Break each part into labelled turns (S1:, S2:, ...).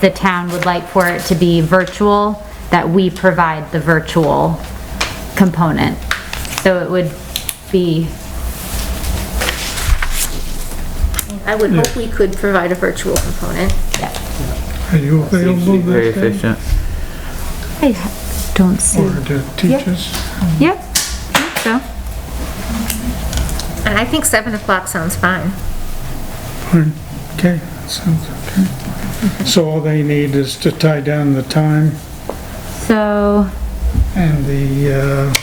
S1: the town would like for it to be virtual, that we provide the virtual component. So it would be,
S2: I would hope we could provide a virtual component.
S1: yeah.
S3: Are you
S4: Seems to be
S3: available
S4: very
S3: that day?
S4: efficient.
S1: I don't see,
S3: Or to teach us?
S1: yep, I think so.
S2: And I think 7 o'clock sounds fine.
S3: Fine. Okay, sounds okay. So all they need is to tie down the time
S1: So,
S3: and the, uh,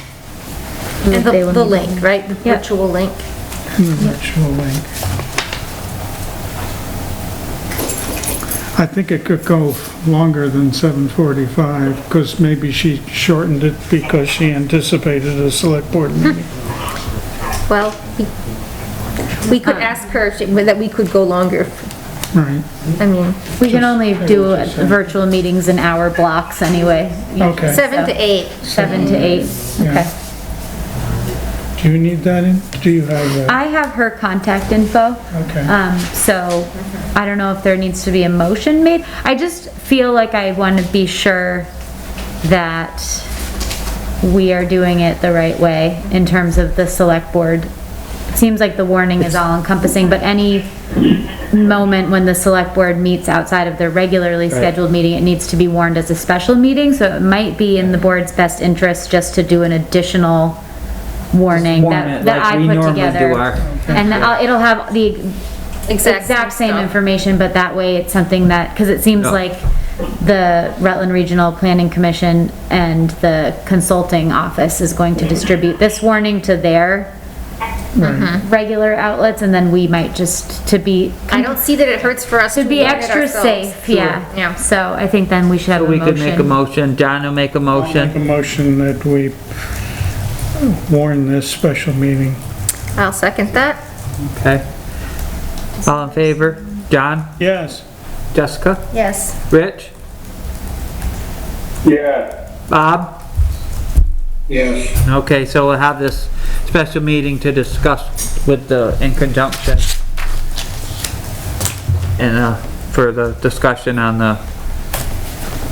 S2: And the
S1: they will
S2: the
S1: need-
S2: link, right? The
S1: Yep.
S2: virtual link.
S3: and the virtual link. I think it could go longer than 7:45, because maybe she shortened it because she anticipated a select board meeting.
S2: Well, we- we could ask her if she- that we could go longer.
S3: Right,
S2: I mean,
S1: we can only do
S3: just saying.
S1: virtual meetings in hour blocks anyway.
S3: Okay.
S2: 7 to 8.
S1: Seven to eight,
S3: Yeah.
S1: okay.
S3: do you need that in? Do you have that?
S1: I have her contact info.
S3: Okay.
S1: Um, so I don't know if there needs to be a motion made. I just feel like I want to be sure that we are doing it the right way in terms of the select board. Seems like the warning is all encompassing, but any moment when the select board meets outside of their regularly scheduled meeting, it needs to be warned as a special meeting, so it might be in the board's best interest just to do an additional warning
S4: Warn
S1: that,
S4: it
S1: that
S4: like
S1: I
S4: we
S1: put
S4: normally do
S1: together.
S4: our-
S1: And I'll- it'll have the
S2: Exact same
S1: exact same
S2: stuff.
S1: information, but that way it's something that, because it seems
S4: Yeah.
S1: like the Rutland Regional Planning Commission and the consulting office is going to distribute this warning to their
S2: Mm-hmm.
S1: regular outlets, and then we might just, to be,
S2: I don't see that it hurts for us to
S1: to be
S2: warn it
S1: extra
S2: ourselves.
S1: safe,
S2: Yeah.
S1: yeah. So I think then we should have
S4: So
S1: a
S4: we could make a
S1: motion.
S4: motion, John will make a
S3: I'll make a
S4: motion,
S3: motion that we warn this special meeting.
S2: I'll second that.
S4: okay? All in favor? John,
S3: Yes,
S4: Jessica,
S2: Yes.
S4: Rich,
S5: Yeah.
S4: Bob?
S5: Yes.
S4: Okay, so we'll have this special meeting to discuss with the, in conjunction. And, uh, for the discussion on the,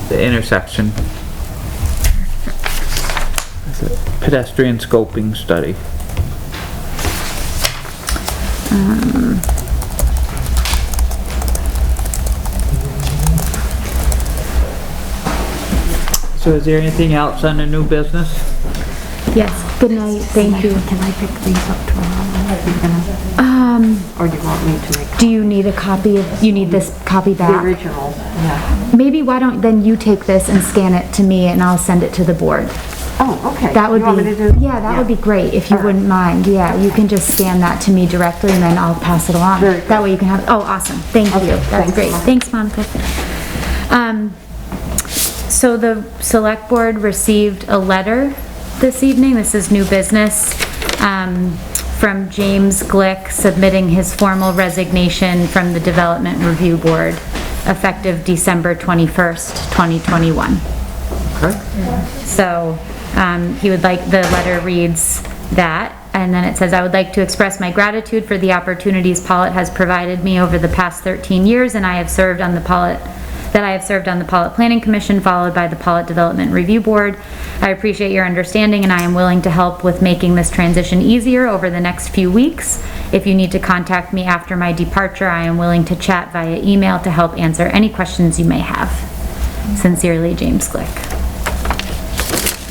S4: the intersection. Pedestrian scoping study. So is there anything else on the new business?
S1: Yes, good night, thank you.
S6: Can I pick these up tomorrow? Or Um, do you want me to make
S1: Do you need a copy of, you need this copy
S6: the
S1: back?
S6: original? Yeah.
S1: Maybe why don't, then you take this and scan it to me, and I'll send it to the board.
S6: Oh, okay.
S1: That would
S6: You want me to
S1: be,
S6: do?
S1: yeah, that would be great, if you wouldn't mind, yeah, you can just scan that to me directly and then I'll pass it along.
S6: Very good.
S1: That way you can have, oh, awesome, thank you,
S6: Okay,
S1: that's
S6: thanks,
S1: great,
S6: Monica.
S1: thanks, Monica. Um, so the select board received a letter this evening, this is new business, um, from James Glick submitting his formal resignation from the Development Review Board, effective December twenty-first, twenty twenty-one.
S4: Okay.
S1: So, um, he would like, the letter reads that, and then it says, "I would like to express my gratitude for the opportunities Pollitt has provided me over the past 13 years, and I have served on the Pollitt, that I have served on the Pollitt Planning Commission, followed by the Pollitt Development Review Board. I appreciate your understanding, and I am willing to help with making this transition easier over the next few weeks. If you need to contact me after my departure, I am willing to chat via email to help answer any questions you may have. Sincerely, James Glick."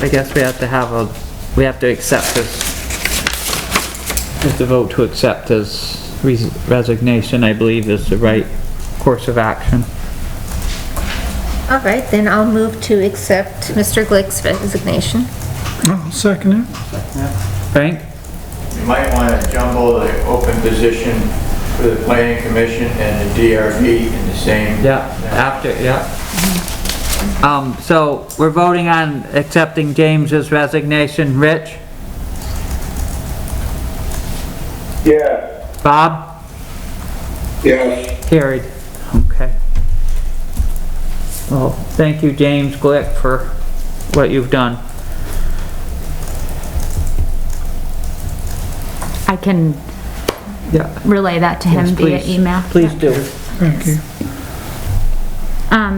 S4: I guess we have to have a, we have to accept this. We have to vote to accept his res- resignation, I believe is the right course of action.
S2: All right, then I'll move to accept Mr. Glick's resignation.
S3: I'll second it.
S4: Frank?
S5: You might want to jumble the open position for the planning commission and the DRB in the same.
S4: Yeah, after, yeah. Um, so we're voting on accepting James's resignation. Rich?
S5: Yeah,
S4: Bob?
S5: yes.
S4: Carried. Okay. Well, thank you, James Glick, for what you've done.
S1: I can
S4: Yeah.
S1: relay that to him
S4: Yes,
S1: via
S4: please.
S1: email.
S4: Please do.
S3: Thank you.
S1: Um,